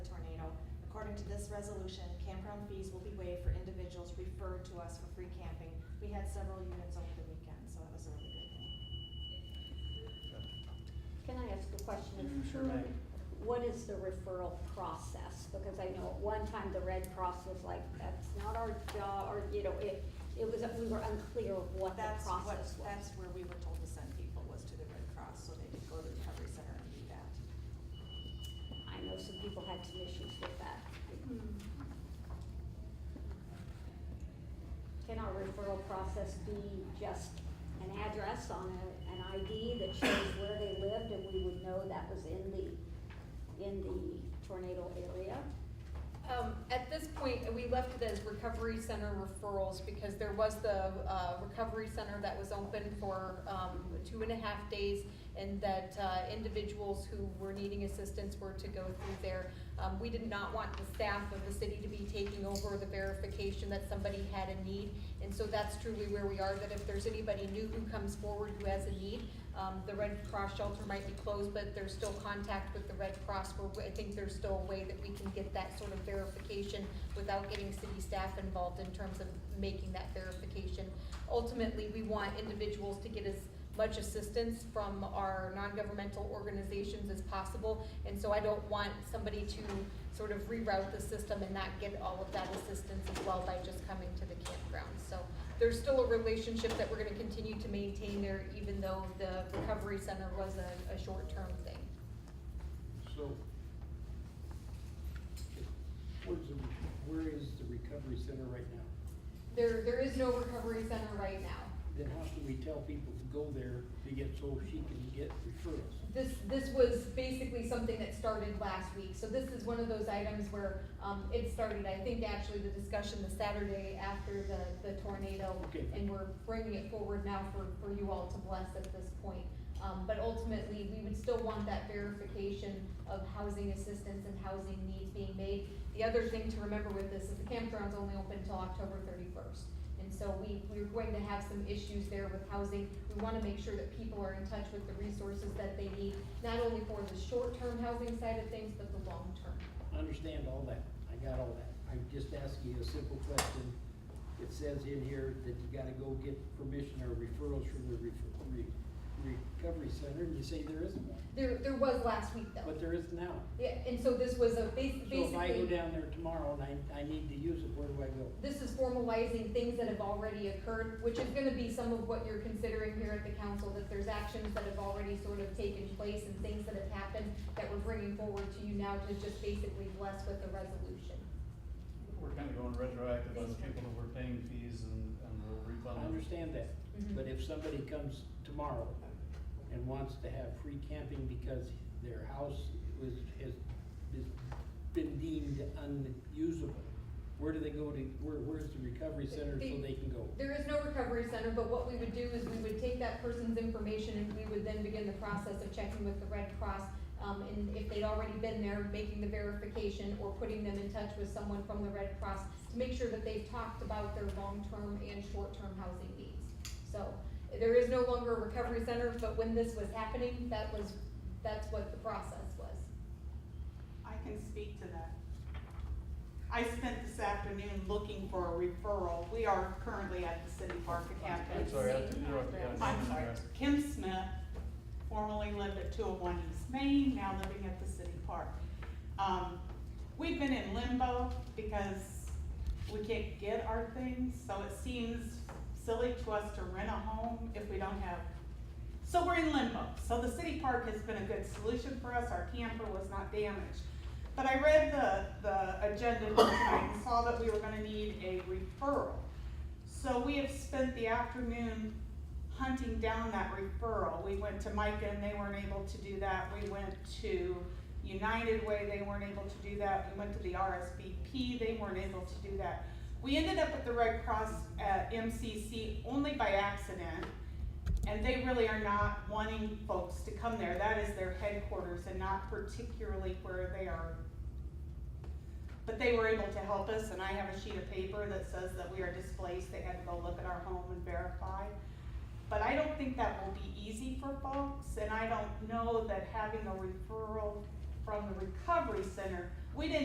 resolution, campground fees will be waived for individuals referred to us for free camping. We had several units over the weekend, so that was a really good thing. Can I ask a question? of You sure who- may. What is the referral process? Because I know at one time the Red Cross was like, that's not our job, or, you know, it, it was, we were unclear of what the That's what, process was. that's where we were told to send people was to the Red Cross, so they could go to the recovery center and do that. I know some people had some issues with that. Hmm. Can our referral process be just an address on a, an ID that shows where they lived and we would know that was in the, in the tornado area? Um, at this point, we left it as recovery center referrals because there was the, uh, recovery center that was open for, um, two and a half days and that, uh, individuals who were needing assistance were to go through there. Um, we did not want the staff of the city to be taking over the verification that somebody had a need. And so that's truly where we are, that if there's anybody new who comes forward who has a need, um, the Red Cross shelter might be closed, but there's still contact with the Red Cross, where I think there's still a way that we can get that sort of verification without getting city staff involved in terms of making that verification. Ultimately, we want individuals to get as much assistance from our non-governmental organizations as possible. And so I don't want somebody to sort of reroute the system and not get all of that assistance as well by just coming to the campground. So there's still a relationship that we're gonna continue to maintain there, even though the recovery center was a, a short-term thing. So, where's the, where is the recovery center right now? There, there is no recovery center right now. Then how can we tell people to go there to get, so she can get referrals? This, this was basically something that started last week, so this is one of those items where, um, it started, I think, actually, the discussion the Saturday after the, the tornado. Okay. And we're bringing it forward now for, for you all to bless at this point. Um, but ultimately, we would still want that verification of housing assistance and housing needs being made. The other thing to remember with this is the campground's only open until October thirty-first. And so we, we're going to have some issues there with housing. We wanna make sure that people are in touch with the resources that they need, not only for the short-term housing side of things, but the long-term. I understand all that, I got all that, I'm just asking you a simple question. It says in here that you gotta go get permission or referrals from the refer, re, recovery center, and you say there isn't one, There, there was last week though. but there is now. Yeah, and so this was a bas- So if I go basically, down there tomorrow and I, I need to use it, where do I go? this is formalizing things that have already occurred, which is gonna be some of what you're considering here at the council, that there's actions that have already sort of taken place and things that have happened that we're bringing forward to you now to just basically bless with a resolution. We're kind of going retroactive on the people who were paying fees and, and we'll I refund them. understand that, Mhm. but if somebody comes tomorrow and wants to have free camping because their house was, has, has been deemed unusable, where do they go to, where, where's the recovery center so they can go? There is no recovery center, but what we would do is we would take that person's information and we would then begin the process of checking with the Red Cross. Um, and if they'd already been there, making the verification or putting them in touch with someone from the Red Cross to make sure that they've talked about their long-term and short-term housing needs. So there is no longer a recovery center, but when this was happening, that was, that's what the process was. I can speak to that. I spent this afternoon looking for a referral. We are currently at the city park at I'm Hampton. sorry, I have to interrupt you. guys. I'm sorry, Kim Smith, formerly lived at two oh one East Main, now living at the city park. Um, we've been in limbo because we can't get our things, so it seems silly to us to rent a home if we don't have. So we're in limbo, so the city park has been a good solution for us, our camper was not damaged. But I read the, the agenda tonight and saw that we were gonna need a referral. So we have spent the afternoon hunting down that referral. We went to Micah and they weren't able to do that. We went to United Way, they weren't able to do that. We went to the RSVP, they weren't able to do that. We ended up at the Red Cross uh, at MCC only by accident. And they really are not wanting folks to come there. That is their headquarters and not particularly where they are but they were able to help us, and I have a sheet of paper that says that we are displaced, they had to go look at our home and verify. But I don't think that will be easy for folks, and I don't know that having a referral from the recovery center, we didn't